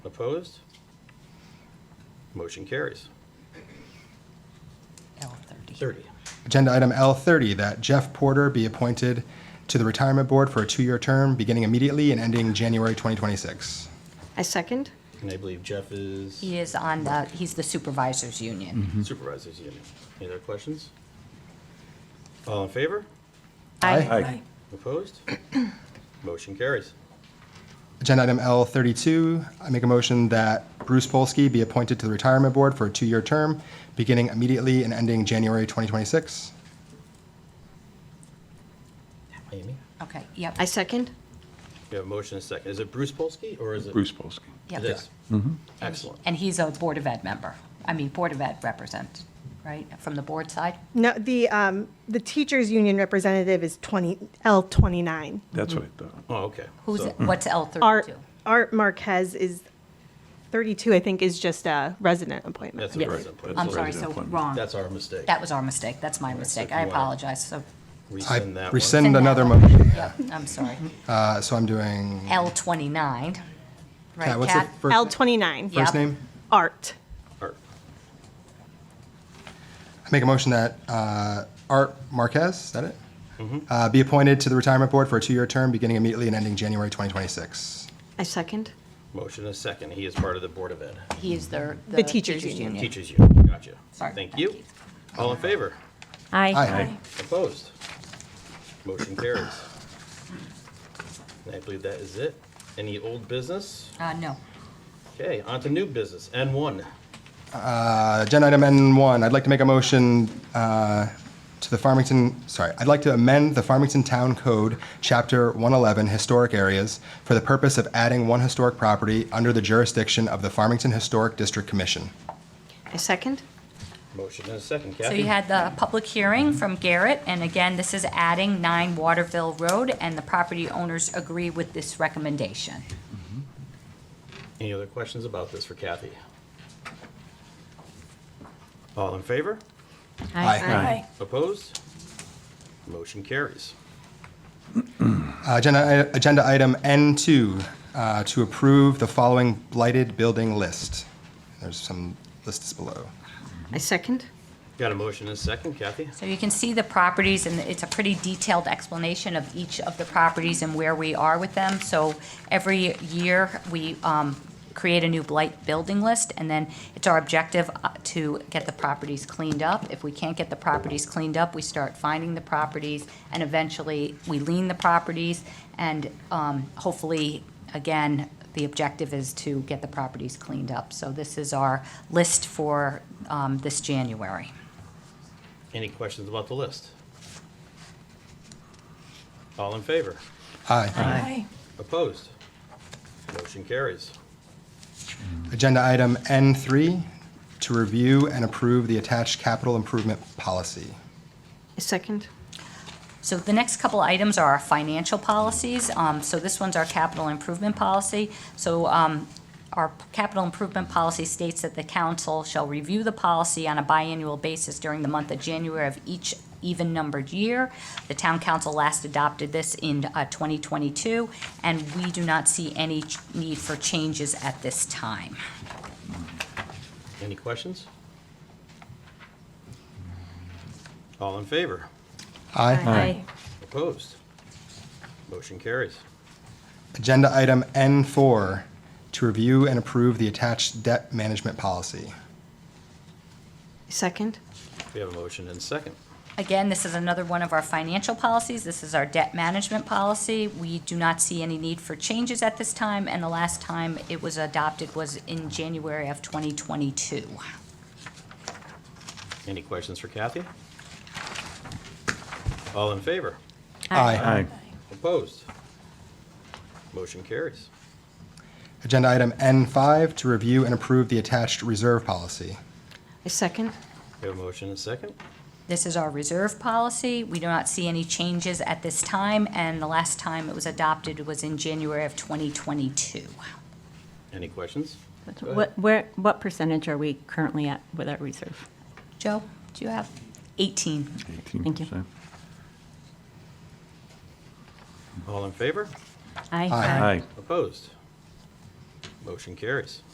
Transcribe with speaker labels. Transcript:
Speaker 1: Opposed? Motion carries.
Speaker 2: L Oh, thirty.
Speaker 1: 30.
Speaker 3: Agenda item L30, that Jeff Porter be appointed to the Retirement Board for a two-year term, beginning immediately and ending January 2026.
Speaker 4: I second.
Speaker 1: And I believe Jeff is
Speaker 2: He is on the, he's the supervisors
Speaker 3: Mm-hmm.
Speaker 2: union.
Speaker 1: supervisor's union. Any other questions? All in favor? Opposed? Motion carries.
Speaker 3: Agenda item L32, I make a motion that Bruce Polsky be appointed to the Retirement Board for a two-year term, beginning immediately and ending January 2026.
Speaker 1: Amy?
Speaker 2: Okay, yep.
Speaker 4: I second.
Speaker 1: We have a motion and a second. Is it Bruce Polsky or is it?
Speaker 5: Bruce Polsky.
Speaker 2: yep.
Speaker 1: It is.
Speaker 3: Mm-hmm.
Speaker 1: Excellent.
Speaker 2: And he's a Board of Ed member, I mean, Board of Ed represent, right, from the board side?
Speaker 6: No, the, um, the teachers' union representative is twenty, L twenty-nine.
Speaker 5: That's what I thought.
Speaker 1: Oh, okay.
Speaker 2: Who's,
Speaker 1: So-
Speaker 2: what's L
Speaker 6: Art,
Speaker 2: thirty-two?
Speaker 6: Art Marquez is thirty-two, I think, is just a resident appointment.
Speaker 1: That's a
Speaker 2: Yes.
Speaker 1: resident point.
Speaker 2: I'm
Speaker 5: That's
Speaker 2: sorry,
Speaker 5: already
Speaker 2: so
Speaker 5: appointed.
Speaker 2: wrong.
Speaker 1: That's our mistake.
Speaker 2: That was our mistake, that's my mistake, I
Speaker 1: wow.
Speaker 2: apologize, so.
Speaker 1: Rescind that
Speaker 3: I
Speaker 1: one.
Speaker 3: rescind another
Speaker 2: Send that
Speaker 3: motion,
Speaker 2: one. Yep, I'm sorry.
Speaker 3: Uh, so I'm doing,
Speaker 2: L twenty-nine,
Speaker 3: Kat,
Speaker 2: right,
Speaker 3: what's the
Speaker 2: Kat?
Speaker 6: L
Speaker 3: first
Speaker 6: twenty-nine,
Speaker 2: Yeah.
Speaker 3: first name?
Speaker 6: Art.
Speaker 1: Or-
Speaker 3: I make a motion that uh, Art Marquez, is that it? Uh, Be appointed to the Retirement Board for a two-year term, beginning immediately and ending January 2026.
Speaker 4: I second.
Speaker 1: Motion and a second. He is part of the Board of Ed.
Speaker 2: He is their.
Speaker 6: The teachers' union. Yeah.
Speaker 1: Teaches union. Gotcha.
Speaker 2: Sorry.
Speaker 1: Thank you. All in favor?
Speaker 3: Aye.
Speaker 1: Opposed? Motion carries. And I believe that is it. Any old business?
Speaker 2: Uh, no,
Speaker 1: Okay, on to new business. N1.
Speaker 3: Uh, Agenda item N1, I'd like to make a motion uh, to the Farmington, sorry, I'd like to amend the Farmington Town Code, Chapter 111, Historic Areas, for the purpose of adding one historic property under the jurisdiction of the Farmington Historic District Commission.
Speaker 4: I second.
Speaker 1: Motion and a second.
Speaker 2: So
Speaker 1: Kathy?
Speaker 2: you had the public hearing from Garrett, and again, this is adding 9 Waterville Road, and the property owners agree with this recommendation.
Speaker 1: Any other questions about this for Kathy? All in favor?
Speaker 5: Aye.
Speaker 1: Opposed? Motion carries.
Speaker 3: Uh, Agenda i- agenda item N2, uh, to approve the following blighted building list. There's some lists below.
Speaker 4: I second.
Speaker 1: Got a motion and a second. Kathy?
Speaker 2: So you can see the properties, and it's a pretty detailed explanation of each of the properties and where we are with them. So every year, we um, create a new blight building list, and then it's our objective uh, to get the properties cleaned up. If we can't get the properties cleaned up, we start finding the properties, and eventually, we lean the properties, and um, hopefully, again, the objective is to get the properties cleaned up. So this is our list for um, this January.
Speaker 1: Any questions about the list? All in favor?
Speaker 3: Aye.
Speaker 1: Opposed? Motion carries.
Speaker 3: Agenda item N3, to review and approve the attached capital improvement policy.
Speaker 4: I second.
Speaker 2: So the next couple items are our financial policies. Um, So this one's our capital improvement policy. So um, our capital improvement policy states that the council shall review the policy on a biannual basis during the month of January of each even-numbered year. The town council last adopted this in uh, 2022, and we do not see any ch- need for changes at this time.
Speaker 1: Any questions? All in favor?
Speaker 3: Aye.
Speaker 1: Opposed? Motion carries.
Speaker 3: Agenda item N4, to review and approve the attached debt management policy.
Speaker 4: I second.
Speaker 1: We have a motion and second.
Speaker 2: Again, this is another one of our financial policies. This is our debt management policy. We do not see any need for changes at this time, and the last time it was adopted was in January of 2022.
Speaker 1: Any questions for Kathy? All in favor?
Speaker 3: Aye.
Speaker 5: Aye.
Speaker 1: Opposed? Motion carries.
Speaker 3: Agenda item N5, to review and approve the attached reserve policy.
Speaker 4: I second.
Speaker 1: We have a motion and second.
Speaker 2: This is our reserve policy. We do not see any changes at this time, and the last time it was adopted was in January of 2022.
Speaker 1: Any questions? Go ahead.
Speaker 7: What, where, what percentage are we currently at with our reserve?
Speaker 2: Joe, do you have 18?
Speaker 7: 18%.
Speaker 1: All in favor?
Speaker 7: Aye.
Speaker 3: Aye.
Speaker 5: Aye.
Speaker 1: Opposed? Motion carries.